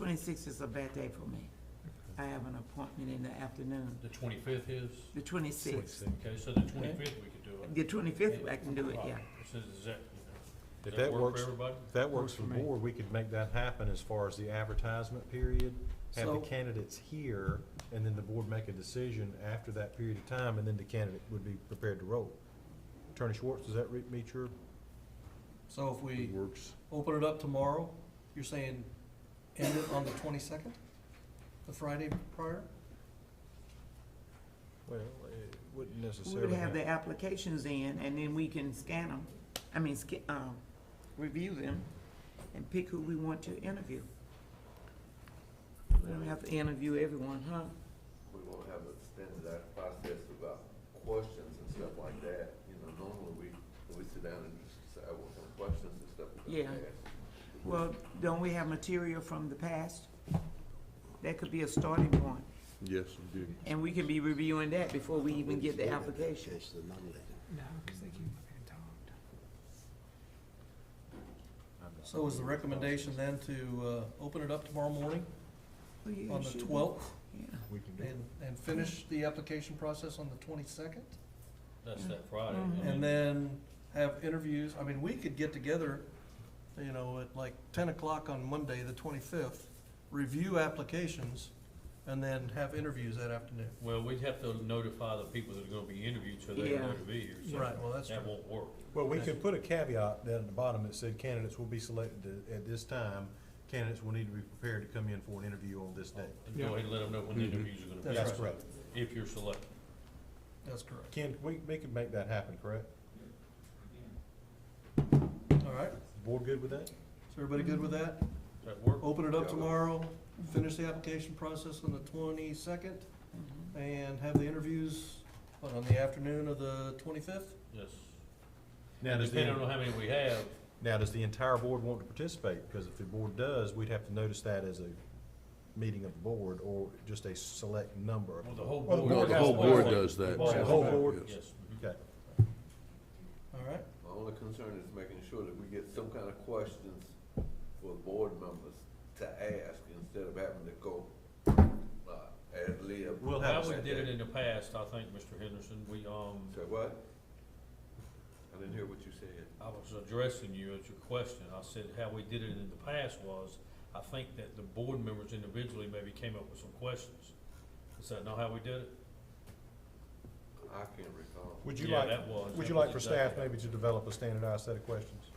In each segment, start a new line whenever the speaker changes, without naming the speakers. twenty-sixth is a bad day for me. I have an appointment in the afternoon,
The twenty-fifth is,
the twenty-sixth.
okay, so the twenty-fifth we could do it.
The twenty-fifth, I can do it, yeah.
Right. So Does that, does
If
that
that
work
works,
for everybody?
if that works
Works
for
for me.
board, we could make that happen as far as the advertisement period. Have the
So-
candidates here, and then the board make a decision after that period of time, and then the candidate would be prepared to roll. Attorney Schwartz, does that re- meet your?
So if we
Works.
open it up tomorrow, you're saying end it on the twenty-second, the Friday prior?
Well, it wouldn't
We would
necessarily
have the
have.
applications in, and then we can scan them, I mean, sca- um, review them and pick who we want to interview. We don't have to interview everyone, huh?
we won't have a standardized process about questions and stuff like that. You know, normally we, we sit down and just decide what kind of questions and stuff we're gonna
Yeah.
ask.
Well, don't we have material from the past? That could be a starting point,
Yes, we do.
and we can be reviewing that before we even get the application.
No, because they keep being talked.
So is the recommendation then to, uh, open it up tomorrow morning
Well, yeah,
on
it should
the
be.
twelfth
Yeah.
We can do.
and, and finish the application process on the twenty-second?
That's that Friday. I
Mhm.
mean,
And then have interviews, I mean, we could get together, you know, at like ten o'clock on Monday, the twenty-fifth, review applications, and then have interviews that afternoon.
Well, we'd have to notify the people that are gonna be interviewed, so they're
Yeah.
going to be here, so
Right, well, that's
that
true.
won't work.
Well, we could put a caveat down at the bottom that said candidates will be selected at this time. Candidates will need to be prepared to come in for an interview on this day.
And Go ahead and let them know when
Mm-hmm.
the interviews are gonna be.
That's
That's correct.
If you're selected.
That's correct.
Ken, we, we could make that happen, correct?
All right,
Board good with that?
is everybody good with that?
Does that work?
Open it up tomorrow, finish the application process on the twenty-second,
Mhm.
and have the interviews what, on the afternoon of the twenty-fifth?
Yes.
Now, does the-
Depending on how many we have,
Now, does the entire board want to participate? Because if the board does, we'd have to notice that as a meeting of the board or just a select number.
well, the whole
Well,
board.
the board The whole has- board
does that.
The whole board.
Yes. mhm.
Okay.
All right,
My only concern is making sure that we get some kind of questions for board members to ask instead of having to go, uh, ad lib.
We'll have,
How we
a-
did it in the past, I think, Mr. Henderson, we, um,
Say what? I didn't hear what you said.
I was addressing you at your question. I said how we did it in the past was, I think that the board members individually maybe came up with some questions. Is that not how we did it?
I can't recall.
would you
Yeah,
like,
that was-
would
that
you
was
like for
exactly-
staff maybe to develop a standardized set of questions?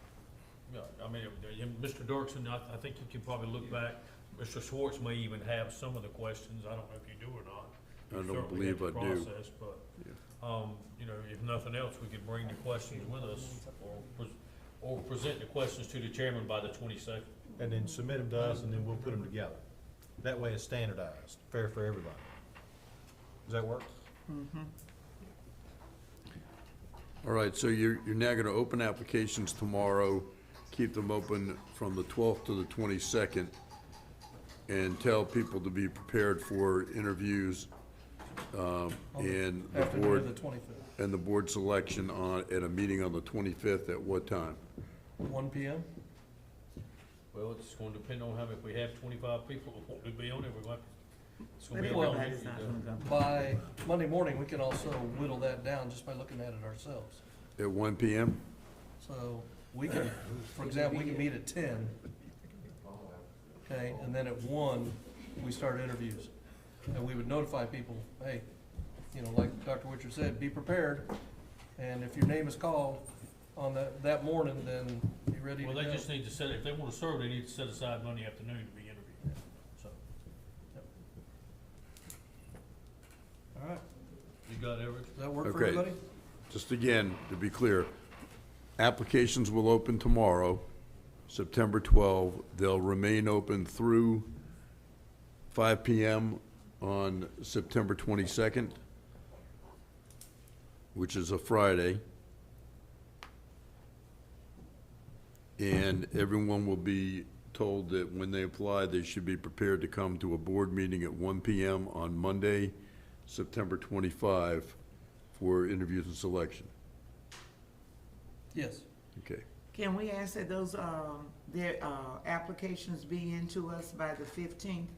Yeah, I mean, it- it- Mr. Dirksen, I, I think you can probably look back. Mr. Schwartz may even have some of the questions. I don't know if you do or not.
I don't
You certainly have
believe
the
I do.
process, But, um, you know, if nothing else, we could bring the questions with us or, pres- or present the questions to the chairman by the twenty-second.
And then submit them to us and then we'll put them together. That way it's standardized, fair for everybody. Does that work?
All right, so you're, you're now gonna open applications tomorrow, keep them open from the twelfth to the twenty-second, and tell people to be prepared for interviews, um, and the
afternoon of the
board,
twenty-fifth,
and the board selection on, at a meeting on the twenty-fifth at what time?
one P M?
Well, it's gonna depend on how, if we have twenty-five people that want to be on it, we might. it's
But
gonna be a
everybody's
long
not
meeting.
gonna go.
By Monday morning, we can also whittle that down just by looking at it ourselves.
At one PM?
So we can, for example, we can meet at ten. Okay, and then at one, we start interviews. And we would notify people, hey, you know, like Dr. Witcher said, be prepared. And if your name is called on that, that morning, then be ready to go.
Well, they just need to set, if they wanna serve, they need to set aside Monday afternoon to be interviewed, so.
All right,
You got everything?
does that work for
Okay.
everybody?
Just again, to be clear, applications will open tomorrow, September 12. They'll remain open through 5 PM on September 22nd, which is a Friday. And everyone will be told that when they apply, they should be prepared to come to a board meeting at 1 PM on Monday, September 25, for interviews and selection.
Yes,
Okay.
Can we ask that those, um, their, uh, applications be into us by the fifteenth?